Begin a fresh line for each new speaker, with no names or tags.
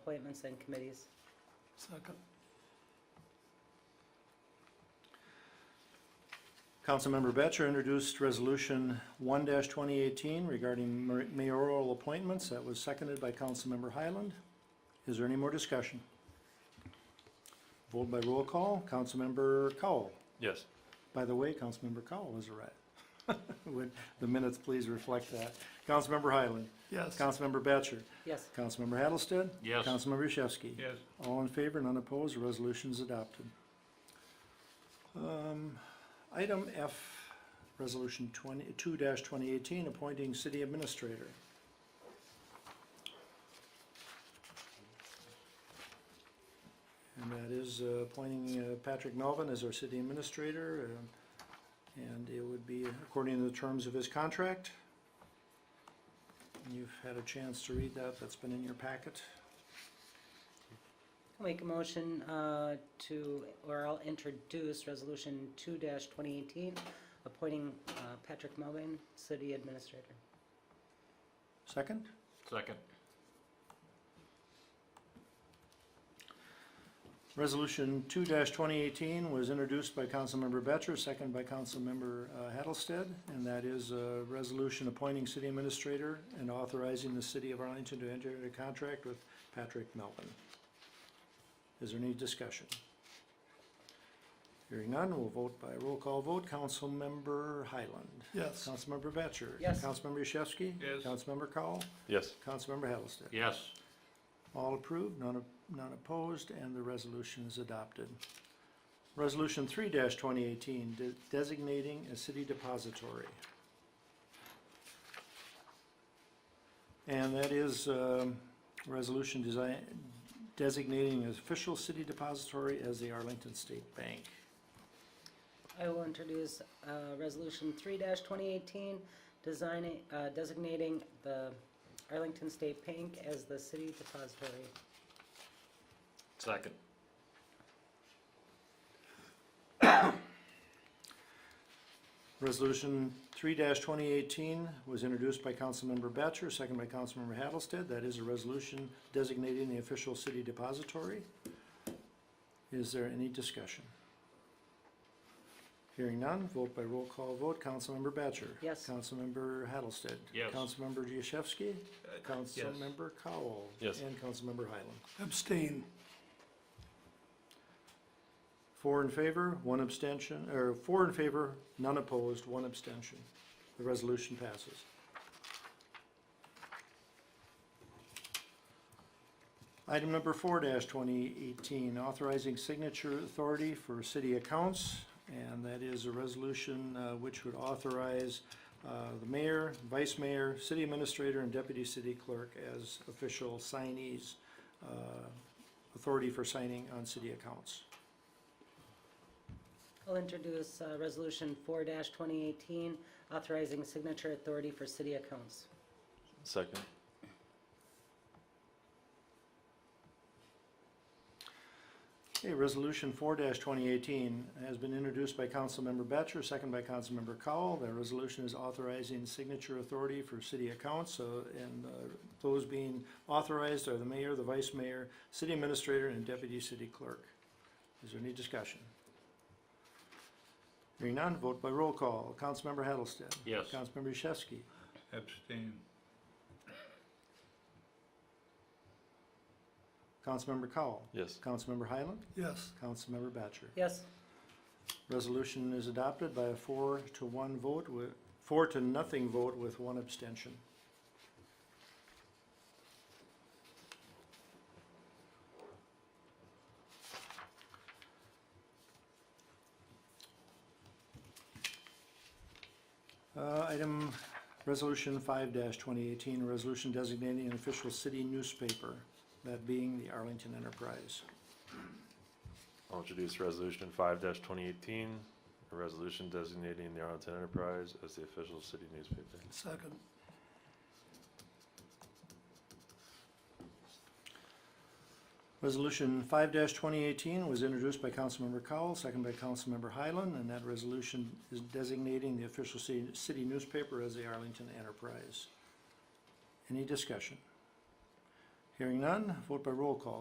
appointments and committees.
Second.
Councilmember Batchor introduced Resolution one twenty eighteen regarding mayor- mayoral appointments. That was seconded by Councilmember Highland. Is there any more discussion? Vote by roll call. Councilmember Cowell.
Yes.
By the way, Councilmember Cowell is a rat. Would the minutes please reflect that? Councilmember Highland.
Yes.
Councilmember Batchor.
Yes.
Councilmember Hattlestead.
Yes.
Councilmember Yashewski.
Yes.
All in favor and unopposed, the resolution is adopted. Um, Item F, Resolution 22 twenty eighteen, appointing city administrator. And that is uh, appointing uh, Patrick Melvin as our city administrator, uh, and it would be according to the terms of his contract. You've had a chance to read that, that's been in your packet.
I'll Make a motion uh, to, or I'll introduce Resolution two twenty eighteen, appointing uh, Patrick Melvin, city administrator.
Second?
Second.
Resolution two twenty eighteen was introduced by Councilmember Batchor, second by Councilmember uh, Hattlestead, and that is a resolution appointing city administrator and authorizing the city of Arlington to enter into contract with Patrick Melvin. Is there any discussion? Hearing none, we'll vote by roll call vote. Councilmember Highland.
Yes.
Councilmember Batchor.
Yes.
Councilmember Yashewski.
Yes.
Councilmember Cowell.
Yes.
Councilmember Hattlestead.
Yes.
All approved, none, op- none opposed, and the resolution is adopted. Resolution three twenty eighteen, designating a city depository. And that is, um, resolution design, designating an official city depository as the Arlington State Bank.
I will introduce uh, Resolution three twenty eighteen, designing, uh, designating the Arlington State Bank as the city depository.
Second.
Resolution three twenty eighteen was introduced by Councilmember Batchor, second by Councilmember Hattlestead. That is a resolution designating the official city depository. Is there any discussion? Hearing none, vote by roll call vote. Councilmember Batchor.
Yes.
Councilmember Hattlestead.
Yes.
Councilmember Yashewski. Councilmember Cowell.
Yes.
And Councilmember Highland.
Abstain.
Four in favor, one abstention, or four in favor, none opposed, one abstention. The resolution passes. Item number four twenty eighteen, authorizing signature authority for city accounts. And that is a resolution uh, which would authorize uh, the mayor, vice mayor, city administrator, and deputy city clerk as official signees, uh, authority for signing on city accounts.
I'll introduce uh, Resolution four twenty eighteen, authorizing signature authority for city accounts.
Second.
Okay, resolution four twenty eighteen has been introduced by Councilmember Batchor, second by Councilmember Cowell. The resolution is authorizing signature authority for city accounts, so, and, uh, those being authorized are the mayor, the vice mayor, city administrator, and deputy city clerk. Is there any discussion? Hearing none, vote by roll call. Councilmember Hattlestead.
Yes.
Councilmember Yashewski.
Abstain.
Councilmember Cowell.
Yes.
Councilmember Highland.
Yes.
Councilmember Batchor.
Yes,
Resolution is adopted by a four to one vote with, four to nothing vote with one abstention. Uh, item, resolution five twenty eighteen, resolution designating an official city newspaper, that being the Arlington Enterprise.
I'll introduce resolution five twenty eighteen, a resolution designating the Arlington Enterprise as the official city newspaper.
Second.
Resolution five twenty eighteen was introduced by Councilmember Cowell, second by Councilmember Highland, and that resolution is designating the official city, city newspaper as the Arlington Enterprise. Any discussion? Hearing none, vote by roll call.